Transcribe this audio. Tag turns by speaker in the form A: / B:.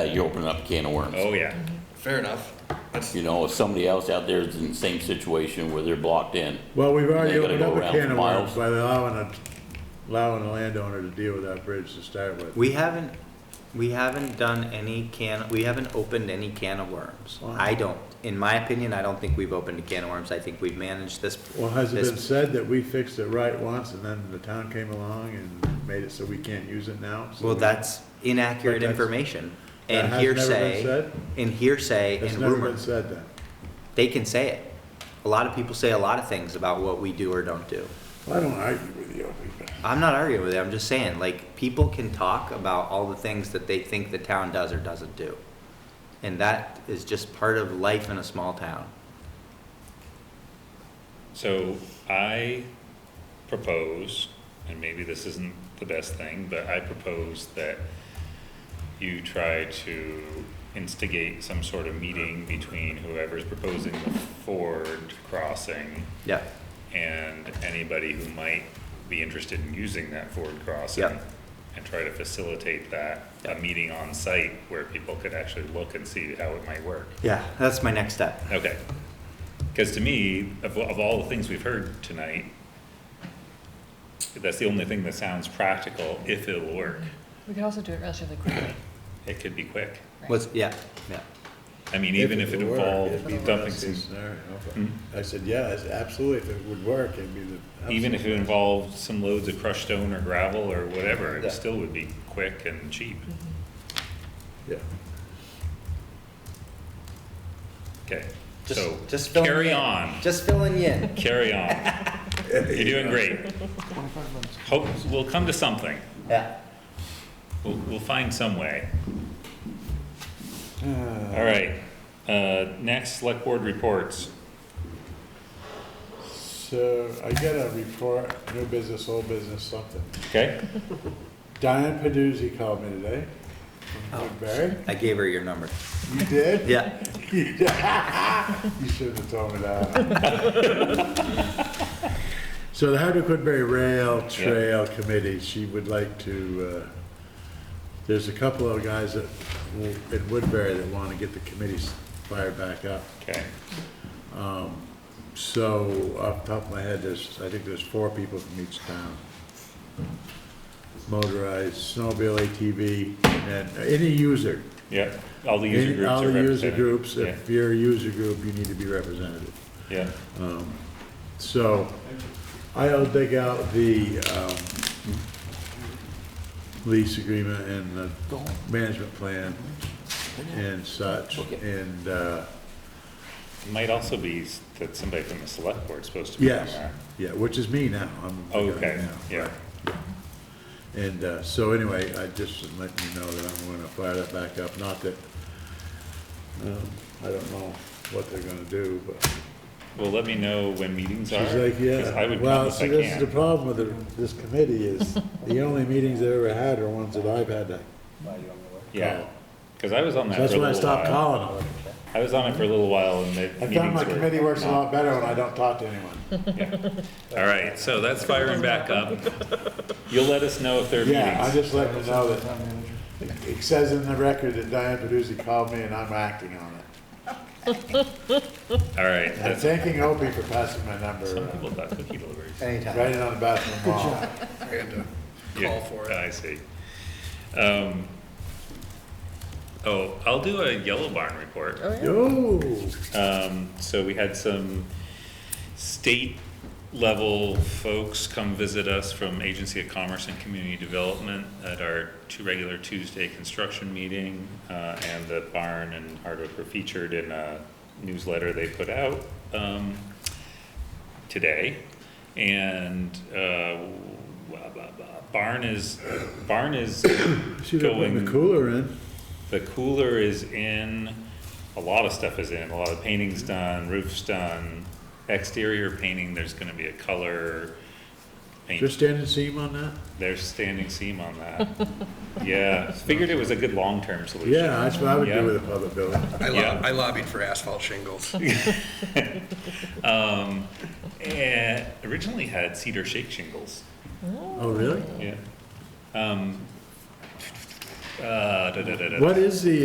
A: you open up a can of worms.
B: Oh, yeah.
C: Fair enough. That's,
A: You know, if somebody else out there is in the same situation where they're blocked in,
D: Well, we've already
A: They gotta
D: opened
A: go
D: up a
A: around
D: can of
A: miles.
D: worms by allowing a, allowing a landowner to deal with that bridge to start with.
E: We haven't, we haven't done any can, we haven't opened any can of worms.
D: Wow.
E: I don't, in my opinion, I don't think we've opened a can of worms. I think we've managed this.
D: Well, has it
E: this-
D: been said that we fixed it right once and then the town came along and made it so we can't use it now? So
E: Well,
D: we-
E: that's
D: But
E: inaccurate
D: that's-
E: information
D: That
E: and
D: has never been
E: hearsay,
D: said?
E: and hearsay
D: It's
E: and
D: never been
E: rumor.
D: said then.
E: They can say it. A lot of people say a lot of things about what we do or don't do.
D: Well, I don't argue with you. but-
E: I'm not arguing with it. I'm just saying, like, people can talk about all the things that they think the town does or doesn't do. And that is just part of life in a small town.
B: So I propose, and maybe this isn't the best thing, but I propose that you try to instigate some sort of meeting between whoever's proposing the Ford crossing
E: Yeah,
B: and anybody who might be interested in using that Ford crossing.
E: Yeah.
B: And try to facilitate that, a
E: Yeah.
B: meeting on site where people could actually look and see how it might work.
E: yeah, that's my next step.
B: Okay. Because to me, of, of all the things we've heard tonight, that's the only thing that sounds practical, if it'll work.
F: We could also do it relatively quickly.
B: It could be quick.
F: right?
E: What's, yeah, yeah.
B: I mean, even if it
D: would work,
B: involved
D: it'd be the
B: dumping
D: best-case
B: some,
D: scenario.
B: Hmm?
D: I said, yeah, it's absolutely, if it would work, it'd be the.
B: even if it involved some loads of crushed stone or gravel or whatever,
D: Yeah.
B: it still would be quick and cheap.
D: Yeah.
B: Okay,
E: Just-
B: so,
E: just fill me
B: carry
E: in.
B: on,
E: Just filling you in.
B: carry on. You're doing great. Hope, we'll come to something.
E: Yeah.
B: We'll, we'll find some way. All right, uh, next, select board reports.
D: So I get a report, new business, old business, something.
B: Okay,
D: Diane Peduzzi called me today. from Woodbury.
E: I gave her your number.
D: You did?
E: Yeah.
D: You shouldn't have told me that. So the Hardwick Woodbury Rail Trail Committee, she would like to, uh, there's a couple of guys that, w- in Woodbury that want to get the committees fired back up.
B: okay,
D: So off the top of my head, there's, I think there's four people from each town. Motorized, snowmobile, ATV, and any user.
B: yeah, all the user
D: Any-
B: groups
D: All
B: are
D: the user
B: represented.
D: groups,
B: Yeah,
D: if you're a user group, you need to be represented.
B: Yeah,
D: So I'll dig out the um, lease agreement and the management plan and such, and, uh,
B: It might also be s- that somebody from the select board's supposed to be on
D: yes,
B: that.
D: yeah, which is me now. I'm the guy
B: Okay,
D: now,
B: yeah,
D: right. And uh, so anyway, I just let you know that I'm gonna fire that back up, not that, um, I don't know what they're gonna do, but.
B: well, let me know when meetings are.
D: She's like,
B: 'cause I
D: yeah,
B: would come
D: well,
B: if
D: see,
B: I
D: this is the
B: can.
D: problem with it- this committee is, the only meetings I've ever had are ones that I've had to,
B: Yeah, because I was on that for a
D: that's when I
B: little
D: stopped
B: while.
D: calling them.
B: I was on it for a little while and the
D: I
B: meetings were.
D: found my committee works a
B: not-
D: lot better when I don't talk to anyone.
B: All right, so that's firing back up. You'll let us know if there are
D: Yeah, I
B: meetings.
D: just let them know that, it says in the record that Diane Peduzzi called me and I'm acting on it.
B: All right,
D: And I'm
B: that's,
D: thanking Opie for passing my number,
B: some
D: around,
B: people got cookie deliveries.
E: Anytime.
D: writing on the bathroom wall.
C: I had to
B: Yeah,
C: call for it.
B: Ah, I see. Um, oh, I'll do a Yellow Barn report.
F: Oh, yeah.
D: Yo,
B: Um, so we had some state level folks come visit us from Agency of Commerce and Community Development at our two regular Tuesday construction meeting, uh, and the barn and Hardwick were featured in a newsletter they put out, um, today. And, uh, blah, blah, blah. barn is, barn is
D: should have put the
B: going,
D: cooler in,
B: the cooler is in, a lot of stuff is in, a lot of painting's done, roof's done, exterior painting, there's gonna be a color
D: just
B: paint.
D: standing seam on that?
B: There's standing seam on that. Yeah, figured it was a good long-term solution.
D: Yeah, that's what I would
B: Yeah.
D: do with a public building.
C: I lo-
B: Yeah.
C: I lobbied for asphalt shingles.
B: Um, eh, originally had cedar shake shingles,
D: Oh, really?
B: yeah. Um, uh, da, da, da, da, da.
D: What is the